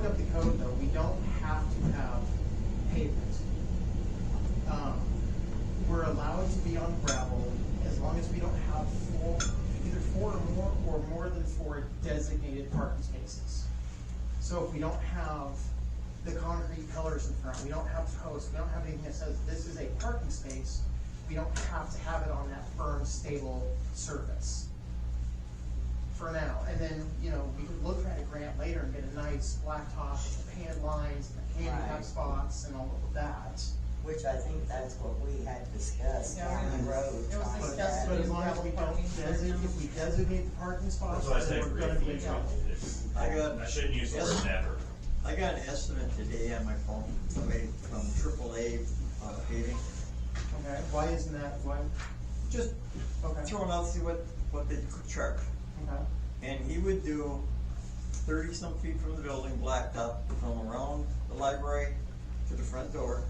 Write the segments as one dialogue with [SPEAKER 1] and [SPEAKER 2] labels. [SPEAKER 1] Um, be on gravel, as long as we don't have four, either four or more, or more than four designated parking spaces. So if we don't have the concrete pillars in front, we don't have posts, we don't have anything that says this is a parking space, we don't have to have it on that firm, stable surface for now. And then, you know, we could look at a grant later and get a nice blacktop, painted lines, handicap
[SPEAKER 2] Right.
[SPEAKER 1] spots and all of that.
[SPEAKER 2] Which I think that's what we had discussed
[SPEAKER 3] Yeah,
[SPEAKER 2] down
[SPEAKER 3] it
[SPEAKER 2] the
[SPEAKER 3] was-
[SPEAKER 2] road.
[SPEAKER 3] it was
[SPEAKER 2] trying to
[SPEAKER 1] But,
[SPEAKER 3] discussed.
[SPEAKER 2] have-
[SPEAKER 1] but as long as we don't designate, if we designate the parking spots,
[SPEAKER 4] That's why I
[SPEAKER 1] then
[SPEAKER 4] say
[SPEAKER 1] we're gonna be
[SPEAKER 4] briefly,
[SPEAKER 1] in trouble.
[SPEAKER 5] I got,
[SPEAKER 4] I shouldn't use the word never.
[SPEAKER 5] I got an estimate today on my phone, somebody from AAA uh, paving,
[SPEAKER 1] Okay, why isn't that, why,
[SPEAKER 5] just
[SPEAKER 1] okay, okay,
[SPEAKER 5] throwing out, see what, what they could charge. And he would do thirty-some feet from the building, blacktop, from around the library to the front door,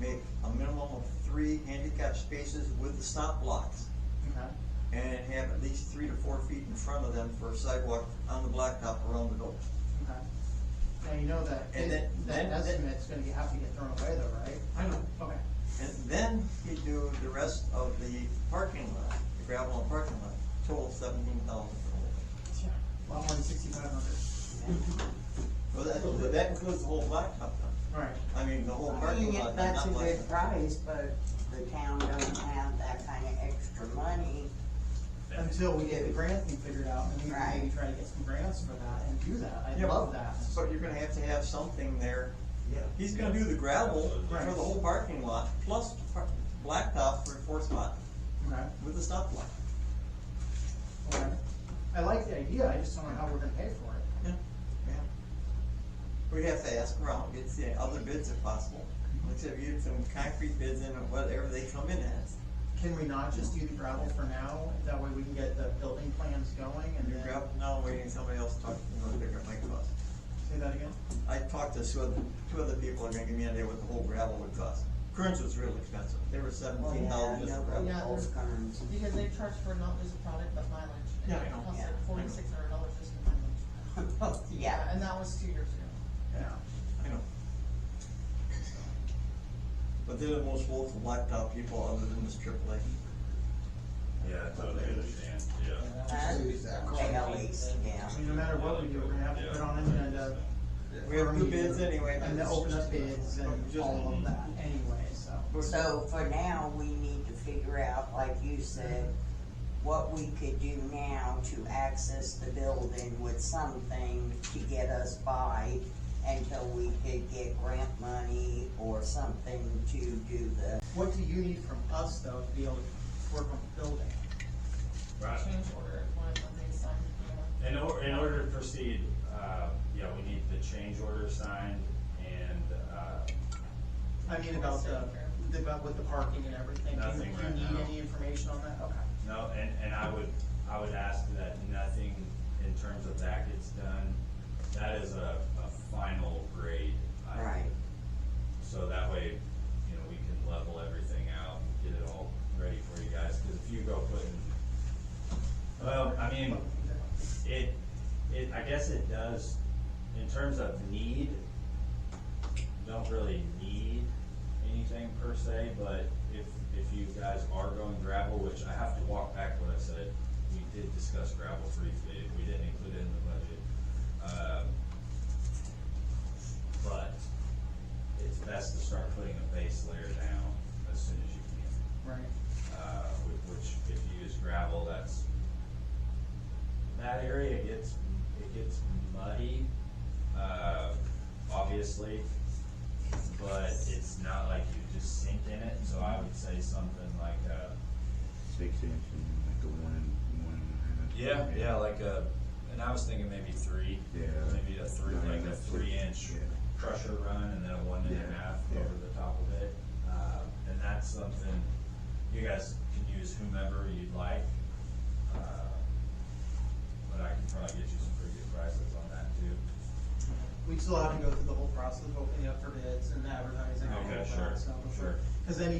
[SPEAKER 5] make a minimum of three handicap spaces with the stop blocks,
[SPEAKER 1] okay.
[SPEAKER 5] and have at least three to four feet in front of them for a sidewalk on the blacktop around the door.
[SPEAKER 1] Okay. Now, you know that,
[SPEAKER 5] And then-
[SPEAKER 1] that
[SPEAKER 5] then-
[SPEAKER 1] estimate's gonna be- have to get thrown away though, right?
[SPEAKER 5] I know.
[SPEAKER 1] Okay.
[SPEAKER 5] And then he do the rest of the parking lot, the gravel and parking lot, total seventeen thousand for the whole thing.
[SPEAKER 1] Lot one sixty-five hundred.
[SPEAKER 5] Well, that, that includes the whole blacktop then,
[SPEAKER 1] Right.
[SPEAKER 5] I mean, the whole
[SPEAKER 2] I mean,
[SPEAKER 5] parking lot, not
[SPEAKER 2] if that's a good
[SPEAKER 5] blacktop.
[SPEAKER 2] price, but the town doesn't have that kind of extra money.
[SPEAKER 1] Until we get the grant thing figured out, and we can maybe
[SPEAKER 2] Right.
[SPEAKER 1] try to get some grants for that and do that, I
[SPEAKER 5] Yeah, but-
[SPEAKER 1] love that.
[SPEAKER 5] But you're gonna have to have something there,
[SPEAKER 2] Yeah.
[SPEAKER 5] he's gonna do the gravel
[SPEAKER 1] Right.
[SPEAKER 5] for the whole parking lot, plus par- blacktop for a fourth spot
[SPEAKER 1] Okay,
[SPEAKER 5] with the stop block.
[SPEAKER 1] okay. I like the idea, I just don't know how we're gonna pay for it.
[SPEAKER 5] Yeah, yeah. We'd have to ask around, get the other bids if possible, let's have you some concrete bids in, or whatever they come in as.
[SPEAKER 1] Can we not just do the gravel for now, that way we can get the building plans going and
[SPEAKER 5] You're
[SPEAKER 1] then,
[SPEAKER 5] grabbing, now I'm waiting, somebody else to talk, you know, pick up my cost.
[SPEAKER 1] say that again?
[SPEAKER 5] I talked to two other, two other people are gonna give me an idea what the whole gravel would cost. Kearns was real expensive, they were
[SPEAKER 1] Oh,
[SPEAKER 2] Well,
[SPEAKER 5] seventeen
[SPEAKER 2] yeah,
[SPEAKER 5] thousand just for gravel.
[SPEAKER 2] nobody
[SPEAKER 3] Yeah,
[SPEAKER 2] holds
[SPEAKER 3] there's-
[SPEAKER 2] guns.
[SPEAKER 3] Because they charge for not just a product, but mileage.
[SPEAKER 5] Yeah, I know.
[SPEAKER 3] It costs
[SPEAKER 2] Yeah, I
[SPEAKER 3] like
[SPEAKER 2] know.
[SPEAKER 3] forty-six hundred dollars just for mileage. Uh,
[SPEAKER 2] Yeah,
[SPEAKER 3] And that was two years ago.
[SPEAKER 1] Yeah.
[SPEAKER 5] I know. But they're the most woeful blacktop people other than this AAA.
[SPEAKER 4] Yeah, I totally understand, yeah.
[SPEAKER 2] they always, yeah.
[SPEAKER 1] I mean, no matter what we do, we're gonna have to put on an agenda.
[SPEAKER 5] We have
[SPEAKER 1] for a
[SPEAKER 5] two bids
[SPEAKER 1] meeting,
[SPEAKER 5] anyway.
[SPEAKER 1] And then open up bids and
[SPEAKER 5] Just- Mm-hmm.
[SPEAKER 1] all of that anyway, so.
[SPEAKER 2] So for now, we need to figure out, like you said, what we could do now to access the building with something to get us by until we could get grant money or something to do the,
[SPEAKER 1] What do you need from us though to be able to work on the building?
[SPEAKER 4] Right.
[SPEAKER 3] Change order, one of them they signed, yeah.
[SPEAKER 4] In or, in order to proceed, uh, yeah, we need the change order signed and, uh,
[SPEAKER 1] I mean about the, the- about with the parking and everything. Do you-
[SPEAKER 4] Nothing
[SPEAKER 1] Do you
[SPEAKER 4] right
[SPEAKER 1] need
[SPEAKER 4] now.
[SPEAKER 1] any information on that? Okay.
[SPEAKER 4] no, and, and I would, I would ask that nothing in terms of that gets done. That is a, a final grade. item.
[SPEAKER 2] right,
[SPEAKER 4] So that way, you know, we can level everything out, and get it all ready for you guys, cause if you go putting, well, I mean, it, it, I guess it does, in terms of need, don't really need anything per se, but if, if you guys are going gravel, which I have to walk back what I said, we did discuss gravel briefly, we didn't include it in the budget. Um, But it's best to start putting a base layer down as soon as you can
[SPEAKER 1] Right.
[SPEAKER 4] uh, whi- which if you use gravel, that's, that area gets, it gets muddy, uh, obviously. But it's not like you just sink in it, so I would say something like, uh,
[SPEAKER 6] six inch and like a one, one and a
[SPEAKER 4] yeah,
[SPEAKER 6] half.
[SPEAKER 4] yeah, like a, and I was thinking maybe three.
[SPEAKER 6] Yeah.
[SPEAKER 4] Maybe a three, like a three inch
[SPEAKER 6] Yeah.
[SPEAKER 4] crusher run and then a one and a
[SPEAKER 6] Yeah,
[SPEAKER 4] half
[SPEAKER 6] yeah.
[SPEAKER 4] over the top of it. Uh, and that's something, you guys can use whomever you'd like. Uh, But I can probably get you some pretty good prices on that too.
[SPEAKER 1] We still have to go through the whole process of opening up for bids and advertising and all
[SPEAKER 4] Okay,
[SPEAKER 1] of
[SPEAKER 4] sure,
[SPEAKER 1] that, so.
[SPEAKER 4] sure.
[SPEAKER 1] Cause then you